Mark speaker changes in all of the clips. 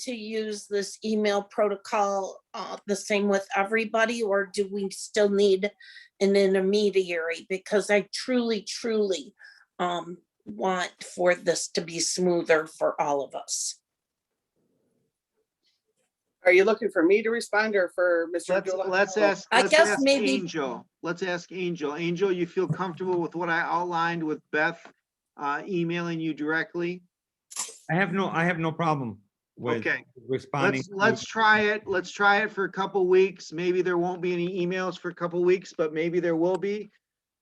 Speaker 1: to use this email protocol uh, the same with everybody, or do we still need an intermediary? Because I truly, truly um, want for this to be smoother for all of us.
Speaker 2: Are you looking for me to respond or for mister
Speaker 3: Let's,
Speaker 2: Abdullah?
Speaker 3: let's ask,
Speaker 1: Oh, I
Speaker 3: let's
Speaker 1: guess
Speaker 3: ask
Speaker 1: maybe-
Speaker 3: Angel. Let's ask Angel. Angel, you feel comfortable with what I outlined with Beth uh, emailing you directly?
Speaker 4: I have no, I have no problem with
Speaker 3: Okay,
Speaker 4: responding.
Speaker 3: let's,
Speaker 4: to-
Speaker 3: let's try it. Let's try it for a couple weeks. Maybe there won't be any emails for a couple weeks, but maybe there will be.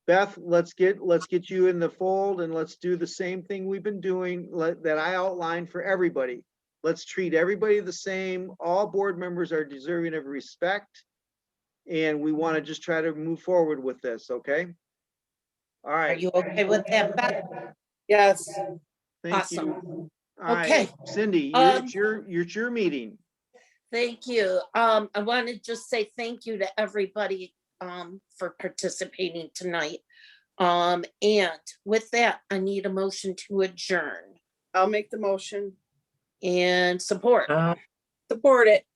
Speaker 3: Beth, let's get, let's get you in the fold and let's do the same thing we've been doing, let, that I outlined for everybody. Let's treat everybody the same. All board members are deserving of respect. And we want to just try to move forward with this, okay? All
Speaker 1: Are
Speaker 3: right,
Speaker 1: you okay with that, Beth?
Speaker 2: Yes,
Speaker 3: thank you.
Speaker 1: Awesome.
Speaker 3: All right,
Speaker 1: Okay.
Speaker 3: Cindy, you're-
Speaker 1: Um,
Speaker 3: it's your, it's your meeting.
Speaker 1: Thank you. Um, I want to just say thank you to everybody, um, for participating tonight. Um, and with that, I need a motion to adjourn
Speaker 2: I'll make the motion.
Speaker 1: and support,
Speaker 2: Support it.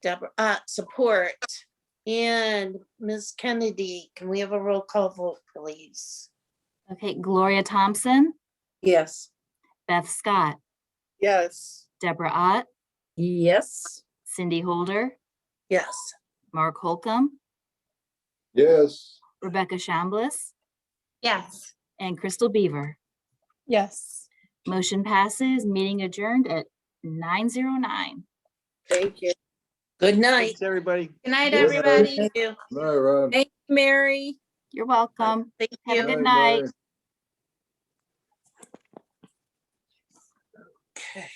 Speaker 1: Deborah, uh, support. And Ms. Kennedy, can we have a roll call vote, please?
Speaker 5: Okay, Gloria Thompson,
Speaker 2: Yes.
Speaker 5: Beth Scott,
Speaker 2: Yes.
Speaker 5: Deborah Ott,
Speaker 6: Yes.
Speaker 5: Cindy Holder,
Speaker 1: Yes,
Speaker 5: Mark Holcomb,
Speaker 7: Yes.
Speaker 5: Rebecca Shambliss,
Speaker 8: Yes.
Speaker 5: and Crystal Beaver.
Speaker 6: Yes.
Speaker 5: Motion passes, meeting adjourned at 9:09.
Speaker 2: Thank you.
Speaker 1: good night.
Speaker 3: Thanks, everybody.
Speaker 8: Good night,
Speaker 7: Good night.
Speaker 8: everybody.
Speaker 1: Thank you.
Speaker 7: All right, Ron.
Speaker 6: Thank you, Mary.
Speaker 5: You're welcome.
Speaker 1: Thank
Speaker 5: Have a
Speaker 1: you.
Speaker 5: good
Speaker 7: Bye,
Speaker 5: night.
Speaker 7: bye.
Speaker 1: Okay.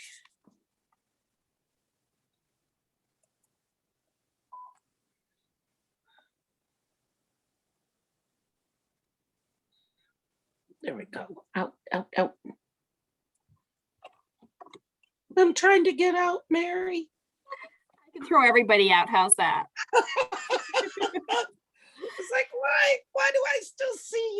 Speaker 1: There we go. Out, out, out. I'm trying to get out, Mary.
Speaker 5: I can Throw everybody out. How's that?
Speaker 2: It's like, why, why do I still see you?